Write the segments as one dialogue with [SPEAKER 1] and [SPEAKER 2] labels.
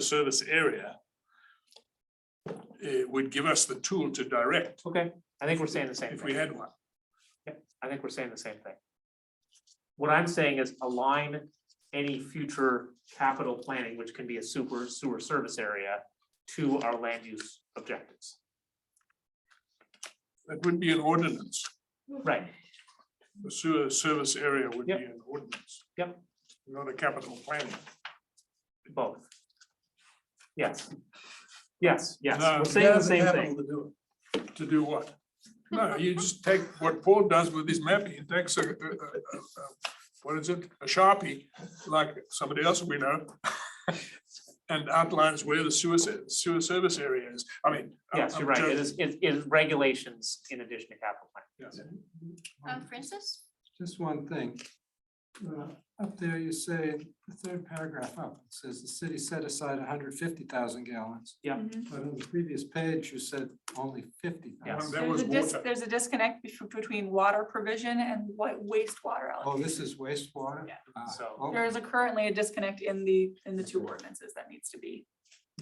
[SPEAKER 1] the service area. It would give us the tool to direct
[SPEAKER 2] Okay, I think we're saying the same
[SPEAKER 1] if we
[SPEAKER 2] thing.
[SPEAKER 1] had one.
[SPEAKER 2] I think we're saying the same thing. What I'm saying is align any future capital planning, which can be a super sewer service area, to our land use objectives.
[SPEAKER 1] That would be an ordinance.
[SPEAKER 2] Right,
[SPEAKER 1] The sewer service area would be
[SPEAKER 2] Yep.
[SPEAKER 1] an ordinance.
[SPEAKER 2] Yep.
[SPEAKER 1] Not a capital plan.
[SPEAKER 2] both. Yes. Yes, yes,
[SPEAKER 1] No,
[SPEAKER 2] we're saying the
[SPEAKER 1] now's
[SPEAKER 2] same
[SPEAKER 1] capital
[SPEAKER 2] thing.
[SPEAKER 1] To do it. To do what? No, you just take what Paul does with his map, he takes a, a- a- a- what is it, a Sharpie, like somebody else we know. And outlines where the sewer, se- sewer service area is. I mean. I'm-
[SPEAKER 2] Yes,
[SPEAKER 1] I'm
[SPEAKER 2] you're right. It
[SPEAKER 1] joking.
[SPEAKER 2] is, it is regulations in addition to capital plan.
[SPEAKER 1] Yes.
[SPEAKER 3] Um, Francis?
[SPEAKER 4] Just one thing. Uh, Up there, you say, the third paragraph up, it says the city set aside hundred fifty thousand gallons.
[SPEAKER 2] Yeah.
[SPEAKER 4] But on the previous page, you said only fifty
[SPEAKER 1] Um,
[SPEAKER 2] Yes.
[SPEAKER 4] thousand.
[SPEAKER 1] That
[SPEAKER 5] There's
[SPEAKER 1] was
[SPEAKER 5] a dis-
[SPEAKER 1] water.
[SPEAKER 5] There's a disconnect bef- between water provision and what wastewater
[SPEAKER 4] Oh,
[SPEAKER 5] allocation.
[SPEAKER 4] this is wastewater?
[SPEAKER 5] Yeah.
[SPEAKER 4] Ah,
[SPEAKER 2] So-
[SPEAKER 4] oh,
[SPEAKER 5] There is a- currently a disconnect in the, in the two ordinances that needs to be.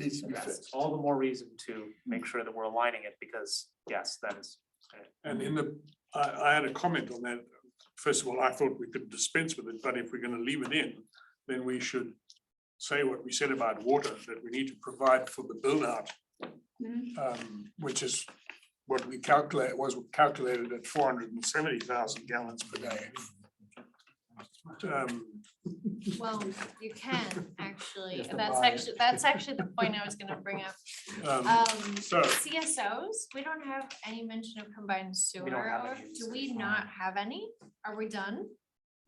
[SPEAKER 1] Needs to be
[SPEAKER 2] That's
[SPEAKER 1] fixed.
[SPEAKER 2] all the more reason to make sure that we're aligning it because, yes, that is.
[SPEAKER 1] And in the, I, I had a comment on that. First of all, I thought we could dispense with it, but if we're gonna leave it in, then we should say what we said about water, that we need to provide for the build out.
[SPEAKER 5] Mhm.
[SPEAKER 3] Mm-hmm.
[SPEAKER 1] Um, which is what we calculate, was calculated at four hundred and seventy thousand gallons per day. Um,
[SPEAKER 3] Well, you can, actually,
[SPEAKER 4] Just a
[SPEAKER 3] that's
[SPEAKER 4] buy.
[SPEAKER 3] actually, that's actually the point I was gonna bring up.
[SPEAKER 1] um,
[SPEAKER 3] Um,
[SPEAKER 1] So,
[SPEAKER 3] CSOs, we don't have any mention of combined
[SPEAKER 2] We don't
[SPEAKER 3] sewer,
[SPEAKER 2] have
[SPEAKER 3] or
[SPEAKER 2] any.
[SPEAKER 3] do we not have any? Are we done?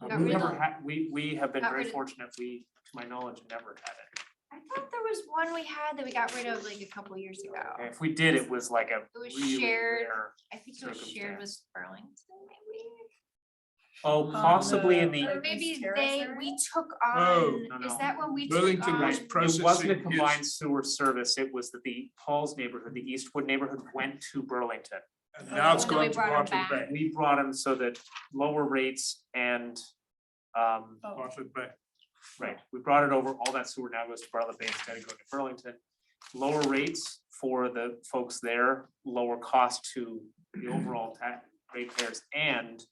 [SPEAKER 2] We've
[SPEAKER 3] Got
[SPEAKER 4] rid
[SPEAKER 2] never
[SPEAKER 3] of-
[SPEAKER 2] had, Um, we, we have been
[SPEAKER 3] Got
[SPEAKER 2] very
[SPEAKER 3] rid of-
[SPEAKER 2] fortunate, we, to my knowledge, never had it.
[SPEAKER 3] I thought there was one we had that we got rid of like a couple years ago.
[SPEAKER 2] If we did, it was like a
[SPEAKER 3] It was
[SPEAKER 2] really
[SPEAKER 3] shared.
[SPEAKER 2] rare,
[SPEAKER 3] I think it was shared with Burlington, maybe?
[SPEAKER 1] Um,
[SPEAKER 2] oh, possibly in the,
[SPEAKER 5] the-
[SPEAKER 3] Or maybe
[SPEAKER 5] Terrace
[SPEAKER 3] they,
[SPEAKER 5] area?
[SPEAKER 3] we took
[SPEAKER 1] No,
[SPEAKER 3] on,
[SPEAKER 2] no,
[SPEAKER 3] is
[SPEAKER 2] no.
[SPEAKER 3] that what we took
[SPEAKER 1] Burlington
[SPEAKER 3] on?
[SPEAKER 1] was
[SPEAKER 2] it wasn't a
[SPEAKER 1] processing
[SPEAKER 2] combined
[SPEAKER 1] is,
[SPEAKER 2] sewer service, it was that the Paul's neighborhood, the Eastwood neighborhood went to Burlington.
[SPEAKER 1] and now it's
[SPEAKER 3] Oh, then we
[SPEAKER 1] gone to
[SPEAKER 3] brought 'em
[SPEAKER 1] Bartlett
[SPEAKER 3] back.
[SPEAKER 1] Bay,
[SPEAKER 2] We brought them so that lower rates and, um,
[SPEAKER 5] Oh,
[SPEAKER 1] Bartlett Bay.
[SPEAKER 2] right, we brought it over, all that sewer now goes to Bartlett Bay instead of going to Burlington. Lower rates for the folks there, lower cost to the overall tax rate payers and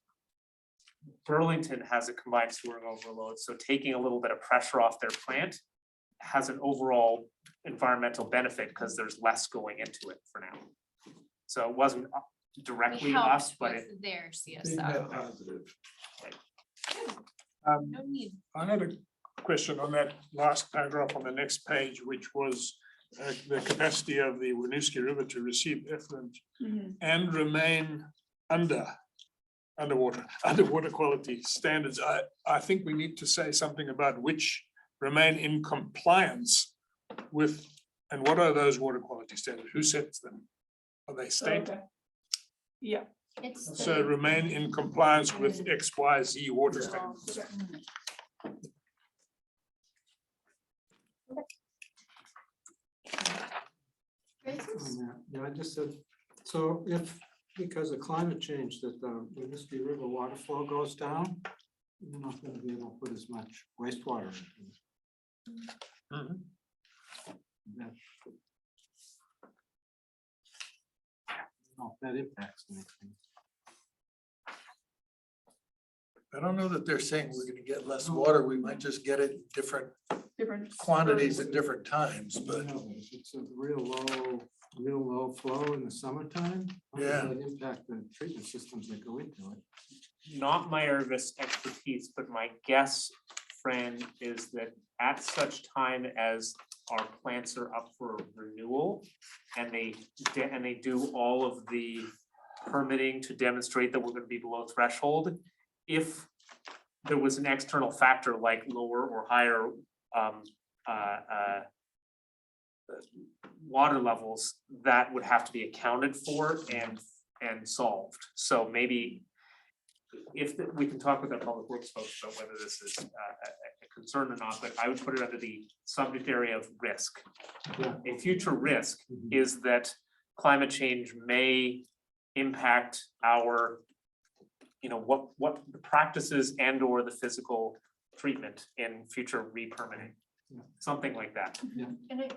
[SPEAKER 2] Burlington has a combined sewer overload, so taking a little bit of pressure off their plant has an overall environmental benefit because there's less going into it for now. So it wasn't uh,
[SPEAKER 3] We
[SPEAKER 2] directly us,
[SPEAKER 3] helped
[SPEAKER 2] but it,
[SPEAKER 3] with their CSO.
[SPEAKER 4] Positive.
[SPEAKER 1] Um,
[SPEAKER 3] No need
[SPEAKER 1] I had a question on that last paragraph on the next page, which was uh, the capacity of the Winooski River to receive effluent
[SPEAKER 5] mhm.
[SPEAKER 1] and remain under underwater, underwater quality standards. I, I think we need to say something about which remain in compliance with, and what are those water quality standards? Who sets them? Are they state?
[SPEAKER 5] Okay. Yeah.
[SPEAKER 3] It's.
[SPEAKER 1] So remain in compliance with X, Y, Z water
[SPEAKER 5] um,
[SPEAKER 1] standards.
[SPEAKER 3] Francis?
[SPEAKER 4] Yeah, I just said, so if, because of climate change, that uh, the Winuski River water flow goes down, you're not gonna be able to put as much wastewater. in.
[SPEAKER 1] Mhm.
[SPEAKER 4] That- No, That impacts anything.
[SPEAKER 6] I don't know that they're saying we're gonna get less water. We might just get it in different
[SPEAKER 5] Different.
[SPEAKER 6] quantities at different times,
[SPEAKER 4] You
[SPEAKER 6] but
[SPEAKER 4] know, if It's a real low, real low flow in the summertime. how does
[SPEAKER 6] Yeah.
[SPEAKER 4] that Impact the treatment systems that go into it.
[SPEAKER 2] not my Irvis expertise, but my guess, Fran, is that at such time as our plants are up for renewal and they, de- and they do all of the permitting to demonstrate that we're gonna be below threshold, if there was an external factor like lower or higher um uh uh water levels, that would have to be accounted for and and solved. So maybe if the- we can talk with our public works folks about whether this is uh, a a- a concern or not, but I would put it under the subject area of risk.
[SPEAKER 4] Yeah.
[SPEAKER 2] A future risk is that climate change may impact our, you know, what, what the practices and or the physical treatment in future re-permitting.
[SPEAKER 4] something like that.
[SPEAKER 2] And it,